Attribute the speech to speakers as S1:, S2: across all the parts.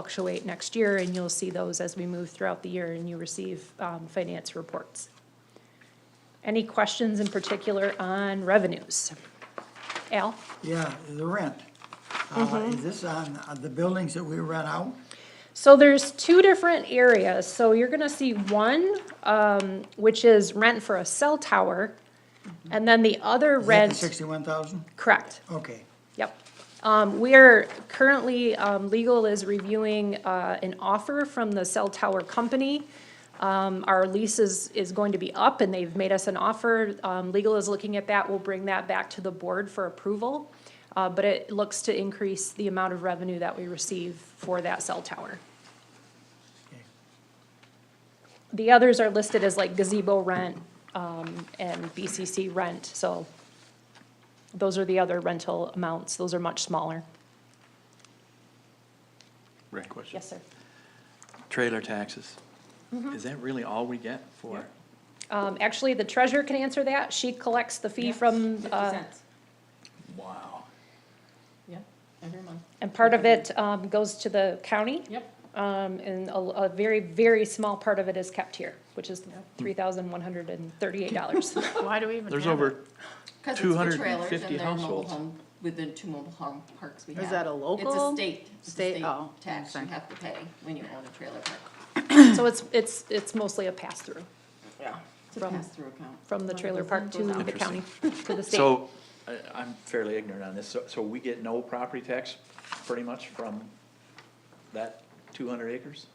S1: fluctuate next year, and you'll see those as we move throughout the year and you receive um, finance reports. Any questions in particular on revenues? Al?
S2: Yeah, the rent. Uh, Is this on uh, the buildings that we rent out?
S1: So there's two different areas. So you're gonna see one, um, which is rent for a cell tower, and then the other rent,
S2: Sixty-one thousand?
S1: correct,
S2: Okay,
S1: yep. Um, we are currently, um, legal is reviewing, uh, an offer from the cell tower company. Um, our lease is, is going to be up and they've made us an offer. Um, legal is looking at that. We'll bring that back to the board for approval. Uh, but it looks to increase the amount of revenue that we receive for that cell tower.
S2: okay.
S1: The others are listed as like gazebo rent, um, and BCC rent, so those are the other rental amounts, those are much smaller.
S3: Rick, question.
S1: Yes, sir. Mm-hmm.
S3: Trailer taxes. Is that really all we get for?
S1: Um, actually, the treasurer can answer that, she collects the fee
S4: Yeah,
S1: from,
S4: Fifty
S1: uh,
S4: cents,
S3: Wow.
S4: yeah, every month,
S1: and part of it, um, goes to the county,
S4: yep.
S1: um, and a, a very, very small part of it is kept here, which is three thousand one hundred and thirty-eight dollars.
S5: Why do we even
S3: There's
S5: have it?
S3: over,
S4: 'Cause it's for
S3: 250
S4: trailers and their mobile
S3: households.
S4: home With the two mobile home parks we have.
S5: Is that a local?
S4: It's a state, it's a
S5: State-
S4: state
S5: oh,
S4: tax you
S5: okay.
S4: have to pay when you own a trailer park.
S1: So it's, it's, it's mostly a pass-through
S4: Yeah. It's a
S1: From-
S4: pass-through account.
S1: from the trailer park to the county, to the state.
S3: so, I, I'm fairly ignorant on this, so, so we get no property tax pretty much from that two hundred acres?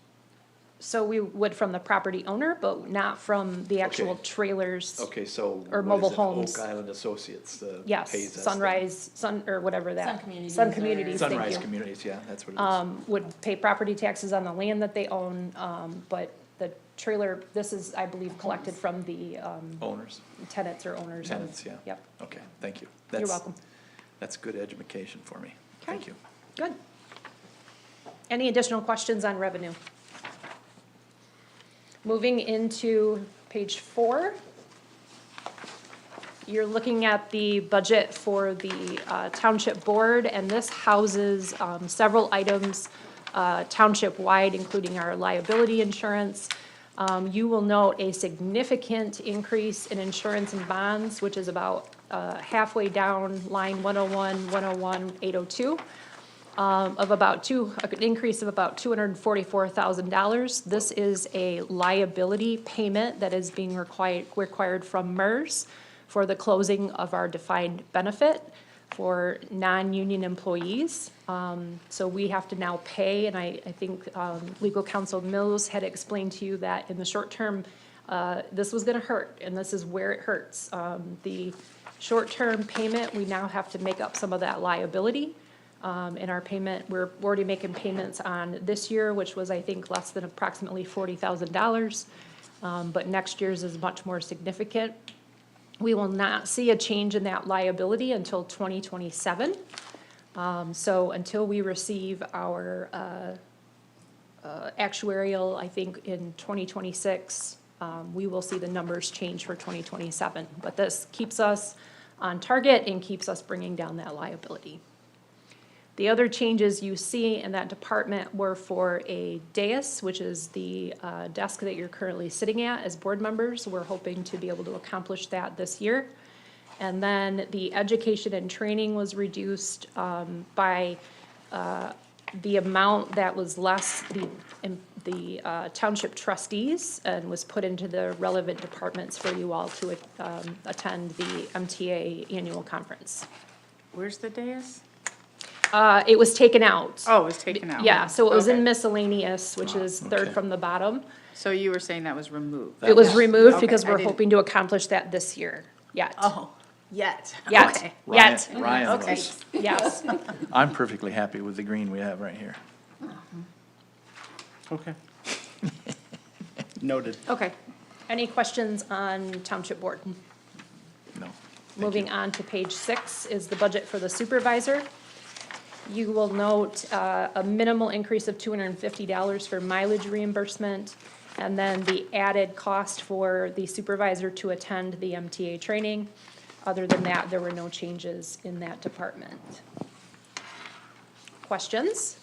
S1: So we would from the property owner, but not from the actual
S3: Okay.
S1: trailers.
S3: Okay, so.
S1: Or
S3: what is
S1: mobile
S3: it,
S1: homes.
S3: Oak Island Associates, uh
S1: Yes,
S3: pays us the-
S1: Sunrise, Sun, or whatever that.
S4: Sun Communities
S1: Sun
S4: or-
S1: Communities, thank
S3: Sunrise
S1: you.
S3: Communities, yeah, that's what it
S1: Um, would pay property taxes on the land that they own, um, but the trailer, this is, I believe, collected from the, um,
S3: is. Owners,
S1: tenants or owners. of-
S3: tenants, yeah.
S1: Yep,
S3: Okay, thank you.
S1: you're
S3: That's-
S1: welcome.
S3: That's good education for me. Thank you.
S1: Good. Any additional questions on revenue? Moving into page four. You're looking at the budget for the uh, Township Board, and this houses um, several items uh, township-wide, including our liability insurance. Um, You will note a significant increase in insurance and bonds, which is about uh, halfway down line 101, 101, 802 um, of about two, an increase of about two hundred and forty-four thousand dollars. This is a liability payment that is being required, required from MERS for the closing of our defined benefit for non-union employees. Um, so we have to now pay, and I, I think, um, legal counsel Mills had explained to you that in the short term, uh, this was gonna hurt, and this is where it hurts. Um, the short-term payment, we now have to make up some of that liability um, in our payment, we're already making payments on this year, which was, I think, less than approximately forty thousand dollars. Um, but next year's is much more significant. We will not see a change in that liability until twenty twenty-seven. Um, so until we receive our, uh, uh, actuarial, I think, in twenty twenty-six, um, we will see the numbers change for twenty twenty-seven. But this keeps us on target and keeps us bringing down that liability. The other changes you see in that department were for a dais, which is the uh, desk that you're currently sitting at as board members. We're hoping to be able to accomplish that this year. And then the education and training was reduced um, by uh, the amount that was less the, in- the uh, township trustees and was put into the relevant departments for you all to um, attend the MTA annual conference.
S5: Where's the dais?
S1: Uh, It was taken out.
S5: Oh, it was taken out.
S1: Yeah, so it was in
S5: Okay. Ah,
S1: miscellaneous, which is third
S3: okay.
S1: from the bottom.
S5: So you were saying that was removed?
S3: That
S1: It was
S3: was-
S1: removed
S5: Okay,
S1: because
S5: I
S1: we're
S5: didn't-
S1: hoping to accomplish that this year, yet.
S5: Oh, yet.
S1: Yet,
S3: Ryan-
S1: yet,
S3: Ryan
S5: Okay.
S3: was.
S1: yes.
S3: I'm perfectly happy with the green we have right here. Okay. Noted.
S1: Okay. Any questions on Township Board?
S3: No.
S1: Moving on to page six is the budget for the supervisor. You will note uh, a minimal increase of $250 for mileage reimbursement, and then the added cost for the supervisor to attend the MTA training. Other than that, there were no changes in that department. Questions?